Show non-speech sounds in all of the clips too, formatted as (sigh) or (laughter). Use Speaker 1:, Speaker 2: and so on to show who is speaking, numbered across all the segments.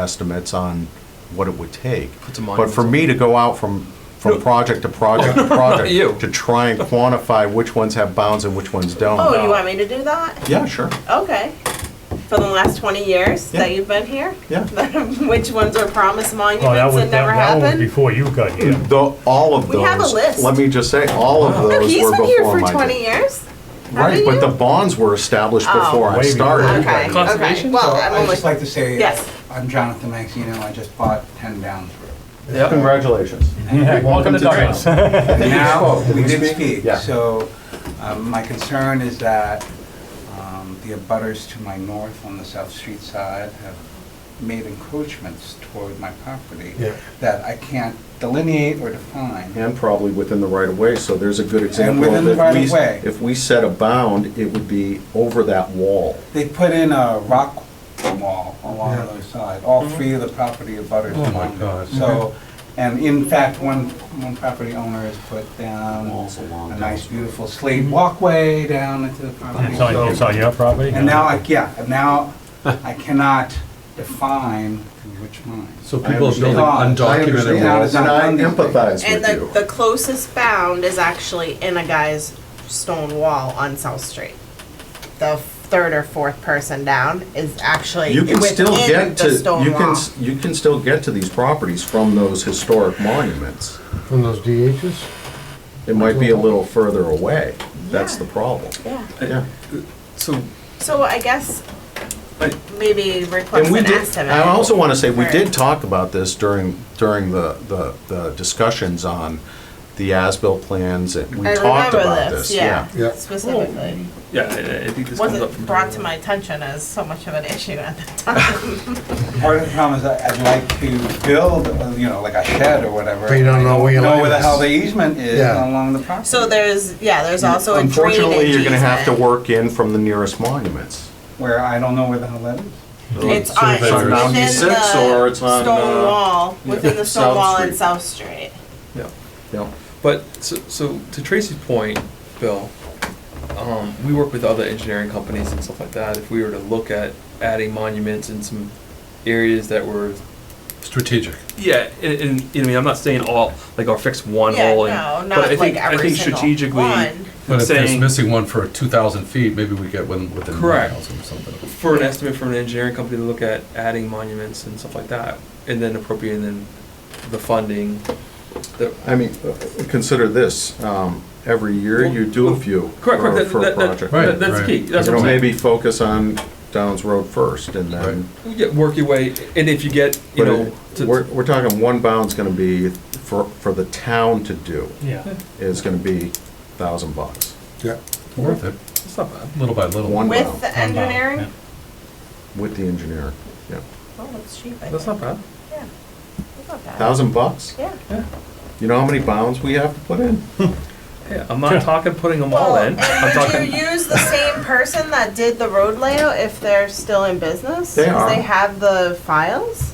Speaker 1: estimates on what it would take.
Speaker 2: Put some
Speaker 1: But for
Speaker 2: monuments
Speaker 1: me to go out from,
Speaker 2: No.
Speaker 1: from project to project
Speaker 2: (laughs)
Speaker 1: to
Speaker 2: you.
Speaker 1: project, to try and quantify which ones have bounds and which ones don't.
Speaker 3: Oh, you want me to do that?
Speaker 1: Yeah, sure,
Speaker 3: Okay. For the last 20 years that
Speaker 1: Yeah.
Speaker 3: you've been here?
Speaker 1: yeah.
Speaker 3: (laughs) Which ones are promised
Speaker 4: Oh, that
Speaker 3: monuments
Speaker 4: was, that
Speaker 3: that never
Speaker 4: that was
Speaker 3: happened?
Speaker 4: before you got here.
Speaker 1: Though, all of those.
Speaker 3: We have a list.
Speaker 1: Let me just say, all of those were
Speaker 3: Look, he's
Speaker 1: before my
Speaker 3: been here for
Speaker 1: day.
Speaker 3: 20 years.
Speaker 1: Right,
Speaker 3: haven't
Speaker 1: but
Speaker 3: you?
Speaker 1: the bonds were established
Speaker 3: Oh.
Speaker 1: before I
Speaker 4: Way before.
Speaker 1: started.
Speaker 3: Okay, okay.
Speaker 2: Conservation?
Speaker 3: Well,
Speaker 5: So
Speaker 3: I'm
Speaker 5: I'd just like
Speaker 3: only,
Speaker 5: to say,
Speaker 3: Yes.
Speaker 5: I'm Jonathan Maxino, I just bought 10 Downs Road.
Speaker 2: Yeah.
Speaker 1: Congratulations.
Speaker 4: Welcome to Douglas.
Speaker 5: And now, we did speak,
Speaker 1: Yeah.
Speaker 5: so um, my concern is that um, the abutters to my north on the South Street side have made encroachments toward my property
Speaker 4: Yeah.
Speaker 5: that I can't delineate or define.
Speaker 1: And probably within the right of way, so there's a good example
Speaker 5: within
Speaker 1: of
Speaker 5: the
Speaker 1: if
Speaker 5: right
Speaker 1: we,
Speaker 5: of way.
Speaker 1: if we set a bound, it would be over that wall.
Speaker 5: They put in a rock wall along the other side,
Speaker 3: Mm-hmm.
Speaker 5: all three of the property abutters.
Speaker 2: Oh, my
Speaker 5: along there.
Speaker 2: God.
Speaker 5: So, and in fact, one, one property owner has put down a nice beautiful slate walkway down into the property.
Speaker 4: It's on, it's
Speaker 5: So-
Speaker 4: on your property?
Speaker 5: And now, I yeah, and now I cannot define which mine.
Speaker 2: So people are building
Speaker 5: I understand.
Speaker 2: undocumented
Speaker 5: I
Speaker 2: walls.
Speaker 5: understand.
Speaker 1: And I
Speaker 5: on these
Speaker 1: empathize
Speaker 3: and
Speaker 1: with
Speaker 3: the,
Speaker 1: you.
Speaker 3: the closest bound is actually in a guy's stone wall on South Street. The third or fourth person down is actually
Speaker 1: You can still
Speaker 3: within
Speaker 1: get to,
Speaker 3: the stone
Speaker 1: you can,
Speaker 3: wall.
Speaker 1: s- you can still get to these properties from those historic monuments.
Speaker 6: From those DHs?
Speaker 1: It might be a little further away. That's
Speaker 3: Yeah.
Speaker 1: the problem.
Speaker 3: Yeah.
Speaker 1: Yeah.
Speaker 2: So,
Speaker 3: So I guess
Speaker 2: I-
Speaker 3: maybe request
Speaker 1: And we
Speaker 3: an
Speaker 1: did,
Speaker 3: estimate.
Speaker 1: I also want to say, we
Speaker 3: Right.
Speaker 1: did talk about this during, during the, the, the discussions on the as-built plans, and we
Speaker 3: I
Speaker 1: talked
Speaker 3: remember
Speaker 1: about this, yeah.
Speaker 6: Yeah.
Speaker 3: Specifically.
Speaker 2: yeah, I, I think this comes up from.
Speaker 3: Wasn't brought to my attention as so much of an issue
Speaker 1: (laughs)
Speaker 3: at the time.
Speaker 5: Part of the problem is I- I'd like to build, uh, you know, like a shed or whatever.
Speaker 6: But you don't know where your
Speaker 5: Know
Speaker 6: line
Speaker 5: where the
Speaker 6: is.
Speaker 5: hell the easement is
Speaker 6: Yeah.
Speaker 5: along the property.
Speaker 3: So there's, yeah, there's also a drainage
Speaker 1: Unfortunately, you're going to have to
Speaker 3: easement.
Speaker 1: work in from the nearest monuments.
Speaker 5: Where I don't know where the hell that is.
Speaker 3: It's on, it's
Speaker 1: It's on
Speaker 3: within
Speaker 1: 96 or
Speaker 3: the
Speaker 1: it's on,
Speaker 3: stone
Speaker 1: uh,
Speaker 3: wall, within the
Speaker 1: South
Speaker 3: stone wall and
Speaker 1: Street.
Speaker 3: South Street.
Speaker 2: Yeah.
Speaker 1: Yeah.
Speaker 2: But so, so to Tracy's point, Bill, um, we work with other engineering companies and stuff like that. If we were to look at adding monuments in some areas that were
Speaker 7: Strategic.
Speaker 2: yeah, and, and you know, I mean, I'm not saying all like our fix one
Speaker 3: Yeah,
Speaker 2: hole, and,
Speaker 3: no,
Speaker 2: but
Speaker 3: not
Speaker 2: I think
Speaker 3: like
Speaker 2: I
Speaker 3: every
Speaker 2: think
Speaker 3: single
Speaker 2: strategically,
Speaker 3: one.
Speaker 7: But if there's
Speaker 2: saying
Speaker 7: missing one for 2,000 feet, maybe we get one within
Speaker 2: Correct.
Speaker 7: miles or something.
Speaker 2: for an estimate from an engineering company to look at adding monuments and stuff like that, and then appropriating then the funding. The,
Speaker 1: I mean, uh, consider this, um, every year you do a few
Speaker 2: correct,
Speaker 1: for
Speaker 2: correct.
Speaker 1: for a
Speaker 2: That, that, that,
Speaker 1: project.
Speaker 7: Right,
Speaker 2: that, that's
Speaker 7: right.
Speaker 2: key. That's
Speaker 1: You
Speaker 2: what
Speaker 1: know,
Speaker 2: I'm saying.
Speaker 1: maybe focus on Downs Road first and then,
Speaker 2: Yeah, work your way, and if you get
Speaker 1: but
Speaker 2: you know,
Speaker 1: it-
Speaker 2: to,
Speaker 1: we're, we're talking one bound's going to be for, for the town to do
Speaker 4: Yeah.
Speaker 1: is going to be thousand bucks.
Speaker 6: Yeah.
Speaker 7: Worth it,
Speaker 2: it's not bad.
Speaker 7: little by little.
Speaker 1: One
Speaker 3: With
Speaker 1: bound
Speaker 3: the engineering?
Speaker 1: with the engineer, yeah.
Speaker 3: Oh, that's cheap, I
Speaker 2: That's
Speaker 3: think.
Speaker 2: not bad.
Speaker 3: Yeah. That's not bad.
Speaker 1: Thousand bucks?
Speaker 3: Yeah.
Speaker 1: You know how many bounds we have to put in?
Speaker 2: Hey, I'm not talking putting them all
Speaker 3: Well,
Speaker 2: in. I'm
Speaker 3: And would
Speaker 2: talking.
Speaker 3: you use the same person that did the road layout if they're still in business?
Speaker 1: They
Speaker 3: Because
Speaker 1: are.
Speaker 3: they have the files?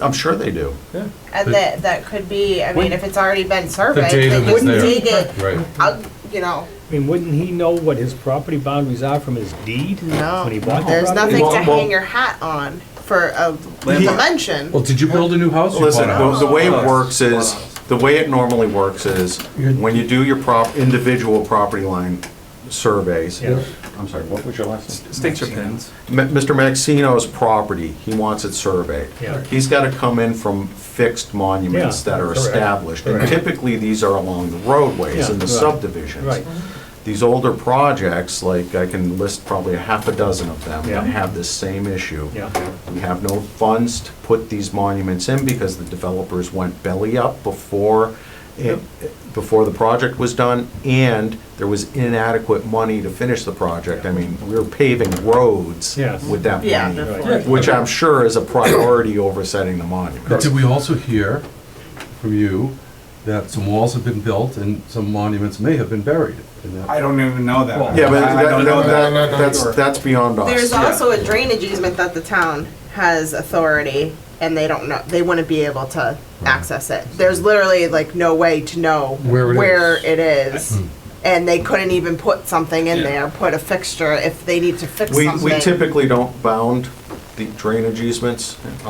Speaker 1: I'm sure they do.
Speaker 2: Yeah.
Speaker 3: And
Speaker 7: The-
Speaker 3: that, that could be, I mean,
Speaker 8: Wouldn't-
Speaker 3: if it's already been surveyed,
Speaker 7: data
Speaker 3: they
Speaker 7: that's
Speaker 3: could
Speaker 7: there.
Speaker 3: dig it,
Speaker 7: Right.
Speaker 3: out, you know.
Speaker 8: I mean, wouldn't he know what his property boundaries are from his deed?
Speaker 3: No,
Speaker 8: When he bought the
Speaker 3: there's
Speaker 8: property?
Speaker 3: nothing to
Speaker 1: Well, well-
Speaker 3: hang your hat on for a
Speaker 1: He-
Speaker 3: dimension.
Speaker 7: Well, did you build a new house? or you
Speaker 1: Listen,
Speaker 7: bought a house?
Speaker 1: the the way
Speaker 2: Wow.
Speaker 1: it works is, the way it normally works is, when you do your prop, individual property line surveys.
Speaker 8: Yeah.
Speaker 1: I'm sorry, what was your last name?
Speaker 2: Stakes or pins.
Speaker 1: Ma- Mr. Maxino's property, he wants it surveyed.
Speaker 8: Yeah.
Speaker 1: He's gotta come in from fixed monuments
Speaker 8: Yeah,
Speaker 1: that are
Speaker 8: correct.
Speaker 1: established, and
Speaker 8: Correct.
Speaker 1: typically, these are along the roadways
Speaker 8: Yeah,
Speaker 1: and the
Speaker 8: right.
Speaker 1: subdivisions.
Speaker 8: Right.
Speaker 1: These older projects, like, I can list probably a half a dozen of them
Speaker 8: Yeah.
Speaker 1: that have this same issue.
Speaker 8: Yeah.
Speaker 1: We have no funds to put these monuments in because the developers went belly up before, it- before the project was done, and there was inadequate money to finish the project. I mean, we were paving roads
Speaker 8: Yes.
Speaker 1: with that
Speaker 3: Yeah,
Speaker 1: money,
Speaker 8: Right.
Speaker 1: which I'm sure is a priority over setting the monument.
Speaker 7: But did we also hear from you that some walls have been built and some monuments may have been buried? in that?
Speaker 5: I don't even know that.
Speaker 2: Well,
Speaker 1: Yeah, but
Speaker 5: I- I
Speaker 1: that-
Speaker 5: don't know
Speaker 1: that-
Speaker 5: that.
Speaker 1: that's, that's beyond us.
Speaker 3: There's also a drainage easement that the town has authority and they don't know, they wouldn't be able to access it. There's literally like no way to know
Speaker 6: Where it
Speaker 3: where
Speaker 6: is.
Speaker 3: it is. And they couldn't even put something in
Speaker 2: Yeah.
Speaker 3: there, put a fixture if they need to fix
Speaker 1: We,
Speaker 3: something.
Speaker 1: we typically don't bound the drainage easements